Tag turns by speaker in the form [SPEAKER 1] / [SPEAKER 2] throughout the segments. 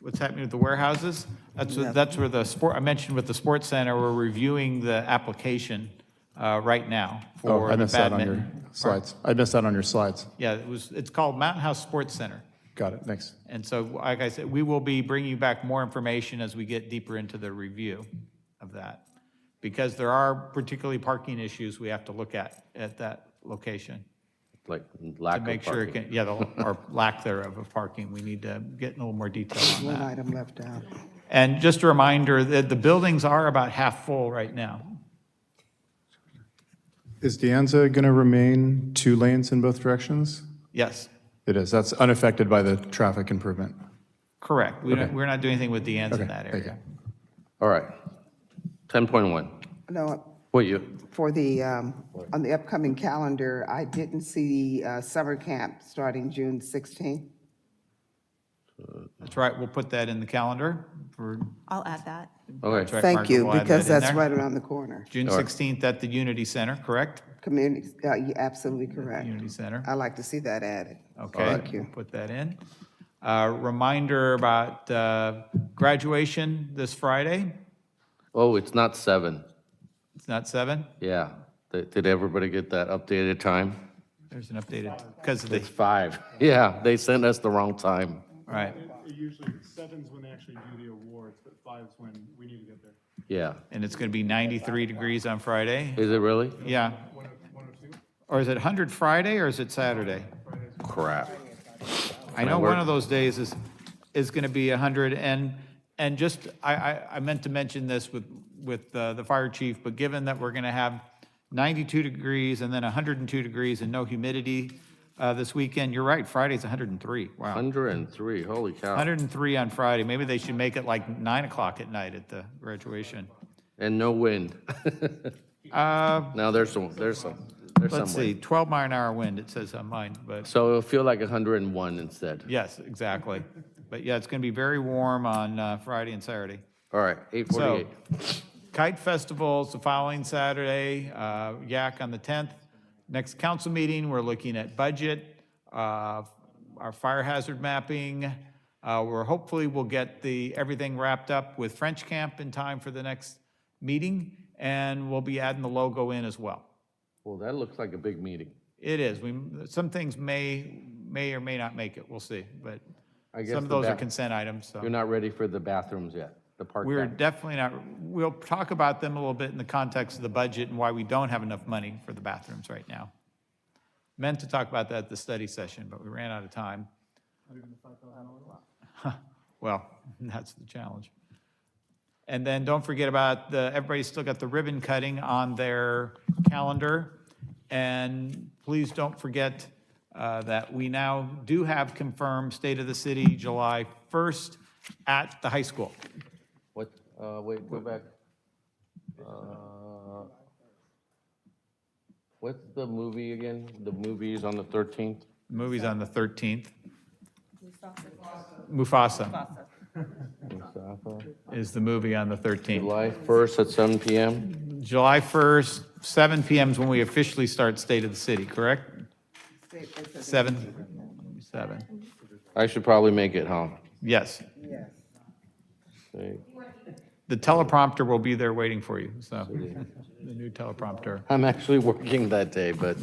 [SPEAKER 1] what's happening with the warehouses. That's, where-
[SPEAKER 2] Yeah.
[SPEAKER 1] that's where the sport, I mentioned with the sports center, we're reviewing the application uh, right now
[SPEAKER 3] Oh,
[SPEAKER 1] for
[SPEAKER 3] I
[SPEAKER 1] the
[SPEAKER 3] missed that on your
[SPEAKER 1] badminton.
[SPEAKER 3] slides. I missed that on your slides.
[SPEAKER 1] Yeah, it was, it's called Mountain House Sports Center.
[SPEAKER 3] Got it, thanks.
[SPEAKER 1] And so, like I said, we will be bringing you back more information as we get deeper into the review of that. Because there are particularly parking issues we have to look at, at that location.
[SPEAKER 4] like lack
[SPEAKER 1] To
[SPEAKER 4] of
[SPEAKER 1] make sure it
[SPEAKER 4] parking.
[SPEAKER 1] can, yeah, the- or lack thereof of parking, we need to get in a little more detail on
[SPEAKER 2] One
[SPEAKER 1] that.
[SPEAKER 2] item left out.
[SPEAKER 1] And just a reminder that the buildings are about half full right now.
[SPEAKER 3] Is Dianza going to remain two lanes in both directions?
[SPEAKER 1] Yes,
[SPEAKER 3] It is, that's unaffected by the traffic improvement.
[SPEAKER 1] correct. We don't, we're not doing anything with the ends in
[SPEAKER 3] Okay,
[SPEAKER 1] that
[SPEAKER 3] thank
[SPEAKER 1] area.
[SPEAKER 3] you.
[SPEAKER 4] All right. 10.1,
[SPEAKER 2] No,
[SPEAKER 4] what you,
[SPEAKER 2] for the, um, on the upcoming calendar, I didn't see uh, summer camp starting June 16.
[SPEAKER 1] That's right, we'll put that in the calendar for.
[SPEAKER 5] I'll add that.
[SPEAKER 1] Direct
[SPEAKER 4] okay,
[SPEAKER 2] Thank
[SPEAKER 1] Market
[SPEAKER 2] you,
[SPEAKER 1] will add that
[SPEAKER 2] because
[SPEAKER 1] in
[SPEAKER 2] that's
[SPEAKER 1] there.
[SPEAKER 2] right around the corner.
[SPEAKER 1] June 16th at the Unity Center, correct?
[SPEAKER 2] Community, uh, you're absolutely correct.
[SPEAKER 1] Unity Center.
[SPEAKER 2] I like to see that added.
[SPEAKER 1] Okay.
[SPEAKER 2] Thank you.
[SPEAKER 1] we'll Put that in. Uh, Reminder about uh, graduation this Friday.
[SPEAKER 4] oh, it's not 7,
[SPEAKER 1] It's not seven.
[SPEAKER 4] yeah. Did did everybody get that updated time?
[SPEAKER 1] There's an updated, because of the,
[SPEAKER 4] It's 5, yeah, they sent us the wrong time.
[SPEAKER 1] all right.
[SPEAKER 6] It Usually seven's when they actually do the awards, but five's when we need to get there.
[SPEAKER 4] Yeah,
[SPEAKER 1] And it's going to be 93 degrees on Friday.
[SPEAKER 4] is it really?
[SPEAKER 1] Yeah. Or is it 100 Friday or is it Saturday?
[SPEAKER 4] Crap.
[SPEAKER 1] I know
[SPEAKER 4] work?
[SPEAKER 1] one of those days is, is going to be 100, and, and just, I, I, I meant to mention this with, with uh, the fire chief, but given that we're going to have 92 degrees and then 102 degrees and no humidity uh, this weekend, you're right, Friday's 103, wow.
[SPEAKER 4] 103, holy cow.
[SPEAKER 1] 103 on Friday, maybe they should make it like 9 o'clock at night at the graduation.
[SPEAKER 4] And no wind. Now, there's some, there's some, there's some
[SPEAKER 1] Uh, Let's see,
[SPEAKER 4] wind.
[SPEAKER 1] 12 mile an hour wind, it says on mine, but.
[SPEAKER 4] So it'll feel like 101 instead.
[SPEAKER 1] Yes, exactly. But yeah, it's going to be very warm on uh, Friday and Saturday.
[SPEAKER 4] All right,
[SPEAKER 1] So
[SPEAKER 4] 848.
[SPEAKER 1] Kite Festival's the following Saturday, uh, Yak on the 10th. Next council meeting, we're looking at budget, uh, our fire hazard mapping. Uh, We're hopefully, we'll get the, everything wrapped up with French Camp in time for the next meeting, and we'll be adding the logo in as well.
[SPEAKER 4] Well, that looks like a big meeting.
[SPEAKER 1] It is, we, some things may, may or may not make it, we'll see, but
[SPEAKER 4] I guess
[SPEAKER 1] some of
[SPEAKER 4] the
[SPEAKER 1] those are
[SPEAKER 4] back-
[SPEAKER 1] consent items, so.
[SPEAKER 4] You're not ready for the bathrooms yet, the park
[SPEAKER 1] We're
[SPEAKER 4] bathrooms.
[SPEAKER 1] definitely not, we'll talk about them a little bit in the context of the budget and why we don't have enough money for the bathrooms right now. Meant to talk about that at the study session, but we ran out of time. Well, that's the challenge. And then don't forget about the, everybody's still got the ribbon cutting on their calendar. And please don't forget uh, that we now do have confirmed State of the City July 1st at the high school.
[SPEAKER 4] What, uh, wait, go back. Uh, What's the movie again? The movie is on the 13th?
[SPEAKER 1] Movie's on the 13th. Mufasa
[SPEAKER 4] Mustafa?
[SPEAKER 1] is the movie on the 13th.
[SPEAKER 4] July 1st at 7 PM?
[SPEAKER 1] July 1st, 7 PM is when we officially start State of the City, correct? Seven, seven,
[SPEAKER 4] I should probably make it, huh?
[SPEAKER 1] yes.
[SPEAKER 2] Yes.
[SPEAKER 4] Say,
[SPEAKER 1] The teleprompter will be there waiting for you, so, the new teleprompter.
[SPEAKER 4] I'm actually working that day, but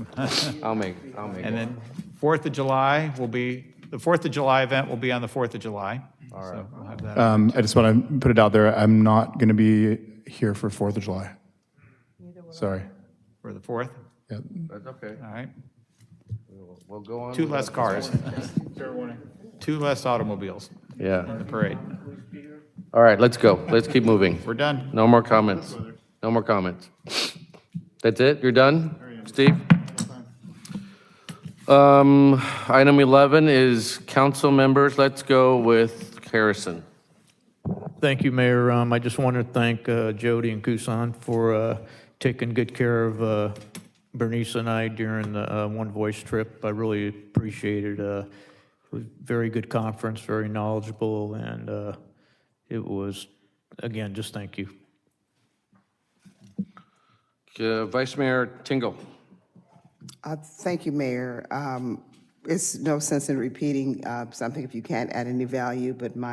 [SPEAKER 4] I'll make, I'll make
[SPEAKER 1] And
[SPEAKER 4] it.
[SPEAKER 1] then 4th of July will be, the 4th of July event will be on the 4th of July. So we'll have that.
[SPEAKER 3] Um, I just want to put it out there, I'm not going to be here for Fourth of July. Sorry.
[SPEAKER 1] for the 4th,
[SPEAKER 3] Yep.
[SPEAKER 4] That's okay.
[SPEAKER 1] all right?
[SPEAKER 4] We'll go on.
[SPEAKER 1] Two
[SPEAKER 4] with
[SPEAKER 1] less
[SPEAKER 4] that.
[SPEAKER 1] cars. Two less automobiles,
[SPEAKER 4] Yeah.
[SPEAKER 1] the parade.
[SPEAKER 4] All right, let's go. Let's keep moving.
[SPEAKER 1] We're done.
[SPEAKER 4] No more comments. No more comments. That's it? You're done? Steve? Um, item 11 is council members. Let's go with Harrison.
[SPEAKER 7] Thank you, Mayor. Um, I just want to thank uh, Jody and Kusan for uh, taking good care of uh, Bernice and I during the uh, One Voice trip. I really appreciated it. uh, It was a very good conference, very knowledgeable, and uh, it was, again, just thank you.
[SPEAKER 4] Uh, Vice Mayor Tingle.
[SPEAKER 2] Uh, Thank you, Mayor. Um, It's no sense in repeating uh, something if you can't add any value, but my